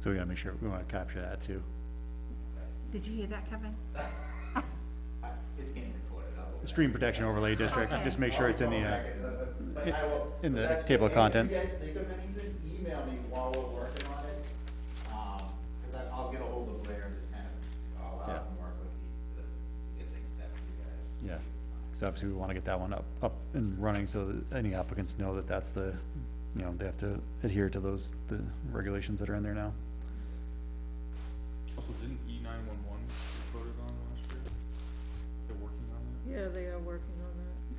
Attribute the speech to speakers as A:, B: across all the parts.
A: So we gotta make sure, we wanna capture that too.
B: Did you hear that, Kevin?
C: It's being recorded, I'll.
A: Stream Protection Overlay District, just make sure it's in the, uh,
C: But I will-
A: in the
C: but that's
A: table of
C: good. And
A: contents.
C: If you guys think of anything, email me while we're working on it, um, cause I, I'll get ahold of Blair and just kind of, I'll
A: Yeah.
C: out and work with you to, to get things set for you
A: yeah.
C: guys.
A: Cause obviously we wanna get that one up, up and running so that any applicants know that that's the, you know, they have to adhere to those, the regulations that are in there now.
D: Also, didn't E nine one one get voted on last year? They're working on that?
E: Yeah, they are working on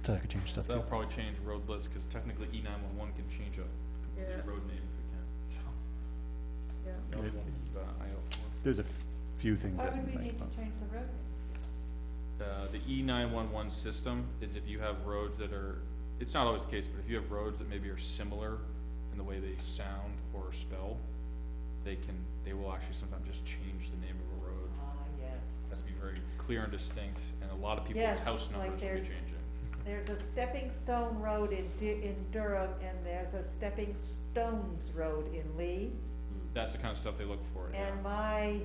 A: So I could change stuff too.
D: That'll probably change road list, cause technically E nine one one can change a
E: that,
D: complete
E: yeah,
D: road name if it can, so.
E: yeah.
D: Probably wanna keep an eye out
A: There's a few things
F: Why
A: that
F: would we
A: might
F: need
A: pop.
F: to change the road?
D: for it. Uh, the E nine one one system is if you have roads that are, it's not always the case, but if you have roads that maybe are similar in the way they sound or spell, they can, they will actually sometimes just change the name of a road.
F: Ah, yes.
D: Has to be very clear and distinct, and a lot of people's
F: Yes,
D: house
F: like
D: numbers will be
F: there's-
D: changing.
F: There's a stepping stone road in, Du- in Durham, and there's a stepping stones road in Lee.
D: That's the kind of stuff they look for, yeah.
F: And my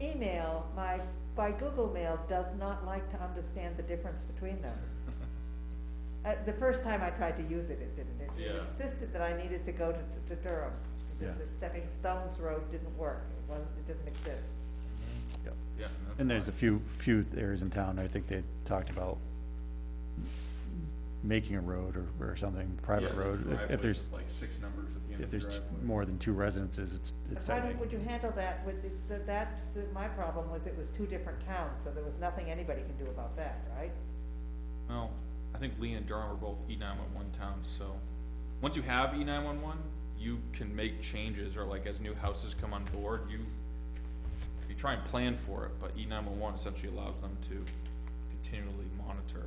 F: email, my, by Google Mail, does not like to understand the difference between those. Uh, the first time I tried to use it, it didn't, It- it
D: Yeah.
F: insisted that I needed to go to, to Durham. The-
A: Yeah.
F: The stepping stones road didn't work, it wasn't, it didn't exist.
A: Yep.
D: Yeah, that's
A: And there's a
D: fine.
A: few, few areas in town, I think they talked about making a road or, or something, private
D: Yeah, there's
A: road. If- If
D: driveways
A: there's,
D: with, Like six numbers at the end
A: if
D: of the
A: there's
D: driveway.
A: more than two residences, it's, it's.
F: How
A: I
F: did,
A: think-
F: would you handle that with, the- the- that, the- my problem was it was two different towns, so there was nothing anybody can do about that, right?
D: Well, I think Lee and Durham are both E nine one one towns, so, once you have E nine one one, you can make changes, or like as new houses come on board, you, you try and plan for it, but E nine one one essentially allows them to continually monitor.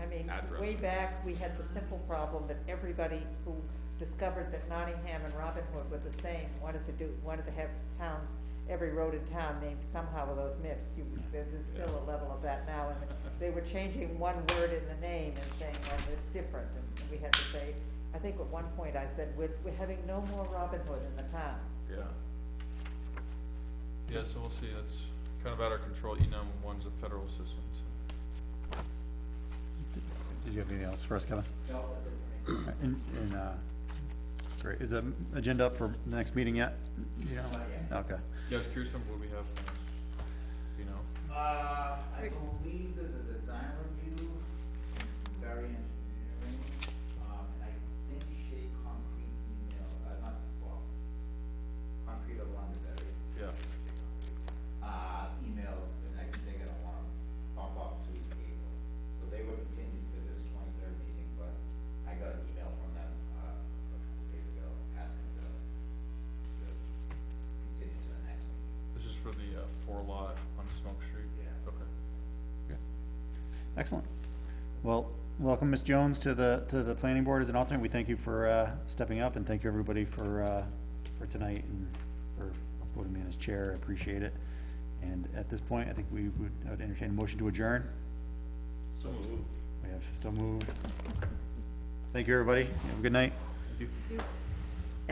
F: I mean, way
D: Addressing.
F: back, we had the simple problem that everybody who discovered that Nottingham and Robin Hood were the same, wanted to do, wanted to have towns, every road in town named somehow of those myths. You, there's there's still a level of that now, and they were changing one word in the name and saying, well, it's different, and we had to say, I think at one point I said, we're, we're having no more Robin Hood in the town.
D: Yeah. Yeah, so we'll see, that's kind of out of our control, E nine one one's a federal system, so.
A: Did you have anything else for us, Kevin?
C: No, that's it for me.
A: All right, And, and, uh, great, is the agenda up for the next meeting yet? Yeah.
C: Not yet.
A: Okay,
D: Yeah, I was curious on what we have next, you
C: Uh,
D: know?
C: I
E: Rick.
C: believe there's a design review, very engineering, um, and I think Shea Concrete email, uh, not, well, Concrete of London, that is. Shea
D: Yeah.
C: Concrete, Uh, email, and I think they're gonna wanna bump up to April, so they were continued to this twenty-third meeting, but I got an email from them, uh, a couple days ago, asking to, to continue to the next meeting.
D: This is for the, uh, four lot on Smoke Street?
C: Yeah.
D: Okay.
A: excellent. Well, welcome, Ms. Jones, to the, to the planning board as an alternate. We thank you for, uh, stepping up and thank you, everybody, for, uh, for tonight and for voting me in as chair. I appreciate it. And at this point, I think we would I would entertain a motion to adjourn.
D: So moved.
A: We have so moved. Thank you, everybody. Have a good night.
F: You-